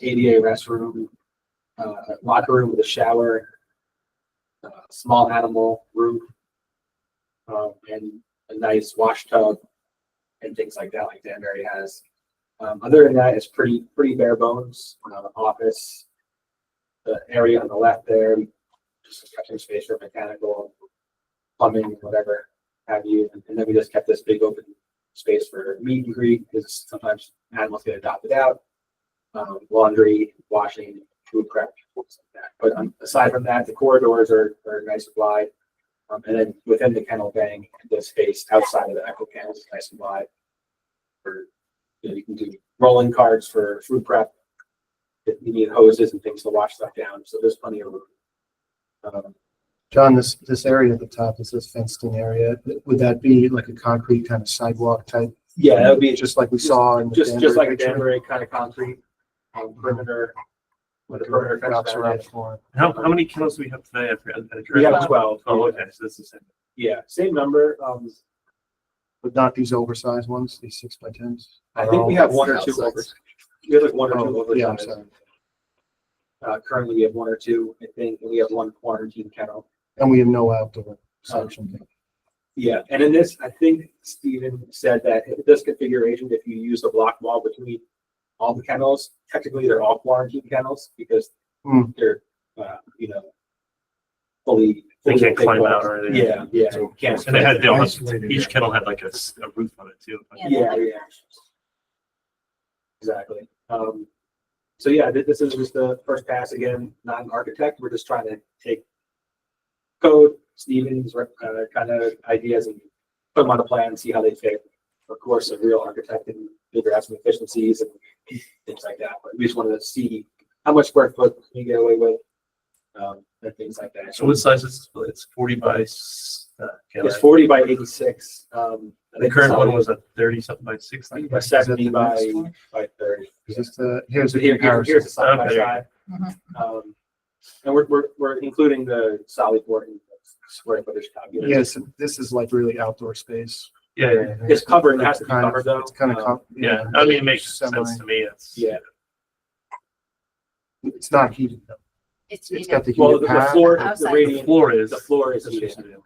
ADA restroom, uh, locker room with a shower, uh, small animal room, um, and a nice wash tub and things like that, like Danbury has. Um, other than that, it's pretty, pretty bare bones, uh, office. The area on the left there, just cutting space for mechanical, plumbing, whatever have you. And then we just kept this big open space for meet and greet because sometimes animals get adopted out. Um, laundry, washing, food prep, things like that. But um, aside from that, the corridors are, are nice and wide. Um, and then within the kennel bang, the space outside of the echo kennel is nice and wide. For, you know, you can do rolling carts for food prep. If you need hoses and things to wash stuff down, so there's plenty of room. Um, John, this, this area at the top, is this fenced in area, would that be like a concrete kind of sidewalk type? yeah, that would be Just like we saw in the. Just, just like a Danbury Danbury kind of concrete um, perimeter. With a picture? perimeter fence Rocks around around the it. floor. How, how many kennels do we have today? I forgot. I We have forgot. twelve. Oh, okay, so that's the same. Yeah, same number. Um, But not these oversized ones, these six by tens? I think we have one or two over. We have like one or two Oh, yeah, I'm oversized. sorry. Uh, currently we have one or two, I think. We have one quarantine kennel. And we have no outdoor section. Yeah, and in this, I think Stephen said that if this configuration, if you use the block wall between all the kennels, technically they're all quarantine kennels because Hmm. they're, uh, you know, fully. They fully can't climb out or enclosed. anything. Yeah, yeah. can't- And they had, they all had- Isolated each area. kennel had like a, s- a roof on it too. Yeah, Yeah, they're yeah. Exactly. Um, so yeah, thi- this is just the first pass again, not an architect. We're just trying to take code, Stevens, uh, kind of ideas and put them on a plan and see how they fit. Of course, a real architect can figure out some efficiencies and things like that, but we just wanted to see how much square foot we get away with. Um, and things like that. So what size is, it's forty by, s- uh, kennel. It's forty by eighty-six, um. I The think current one solid was a thirty something by sixty. By Is that the seventy by, next one? by thirty. Is this the, here's So the here- here- comparison. Here's the side by Okay. side. Um, And we're, we're, we're including the solid board and square footage calculation. Yes, this is like really outdoor space. Yeah, yeah, It's covered, it has to be covered though. It's kind Um, of. yeah. I mean, it makes sense to me. It's. Yeah, It's not heated though. It's, It's heated. got the well, heated the- the pad. floor, the Outside. The radiant, floor is. the floor is That's heated. what you do.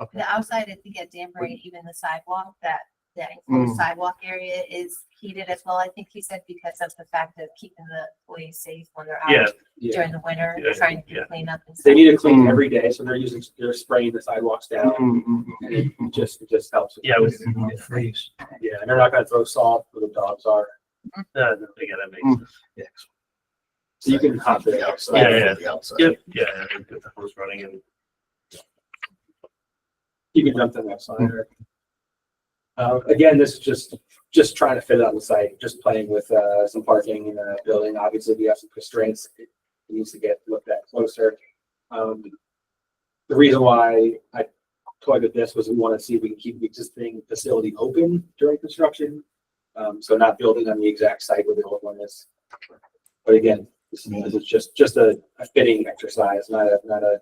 Okay. The outside, I think at Danbury, even the sidewalk, that, that Mm. enclosed sidewalk area is heated as well. I think he said because of the fact of keeping the employees safe when they're Yeah, out Yeah. during the winter, Yeah, trying yeah. to clean up and stuff. They need to clean Mm. every day, so they're using, they're spraying the sidewalks down Mm, mm, mm. and it just, it just helps. yeah, it was, Freeze. Yeah, and they're not gonna throw salt where the dogs are, uh, no, no, yeah, that makes Mm. sense. so you can hop it out. Yeah, yeah. The outside. Yep, yeah, I think that the hose running and You can jump to the next slide. Eric. Uh, again, this is just, just trying to fit it on the site, just playing with, uh, some parking in the building. Obviously, we have some constraints. It needs to get looked at closer. Um, the reason why I toyed with this was we want to see if we can keep the existing facility open during construction. Um, so not building on the exact site where the old one is. But again, this is this is just, just a a fitting exercise, not a, not a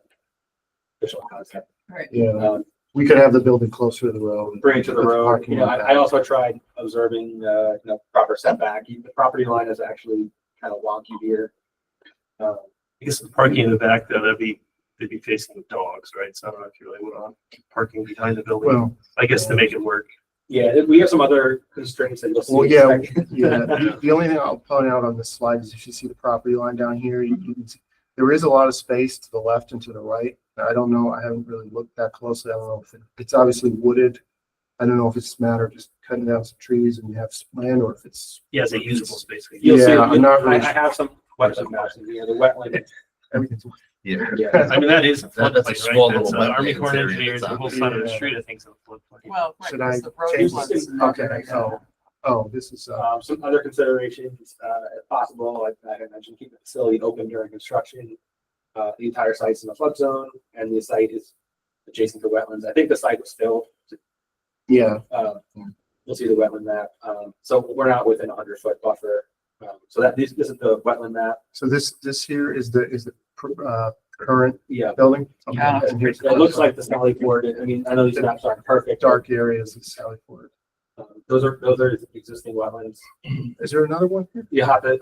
official concept. Yeah, Um, we could have the building closer to the road. bring it to the Put road. parking You know, lot I, I back. also tried observing, uh, you know, proper setback. The property line is actually kind of wonky here. Uh, I guess the parking in the back, though, that'd be, they'd be facing the dogs, right? So I don't know if you really would want parking behind the building, Well, I guess to make it work. yeah, we have some other constraints that you'll see. Well, in a yeah, second. yeah, the- the only thing I'll point out on this slide is if you see the property line down here, you can, see- there is a lot of space to the left and to the right. I don't know, I haven't really looked that closely. I don't know if it- it's obviously wooded. I don't know if it's a matter of just cutting down some trees and you have some land or if it's. Yeah, it's a usable space. You'll see, Yeah, I'm I, not really I have some wetland maps in here, the wetland. Everything's. Yeah. Yeah, I mean, that is a That- that's a floodplain, small right? That's little uh, Army wetlands Corps of area Engineers, the that's whole out side of the there. street, I think, is a floodplain. Well, right, Should I because the road change was- this? Okay. Okay, so, oh, this is, uh, um, some other considerations, uh, if possible, like I had mentioned, keep the facility open during construction. Uh, the entire site's in a flood zone and the site is adjacent to wetlands. I think the site was filled yeah, Um, You'll see the wetland map. Um, So we're not within a hundred foot buffer. Um, So that, this, this is the wetland map. so this, this here is the, is the, pr- uh, current Yeah. building. Yeah. And here's- It looks like the Sally Port. I mean, I know these maps aren't perfect. dark areas of Sally Port. Um, Those are, those are existing wetlands. Is there another one here? You have to,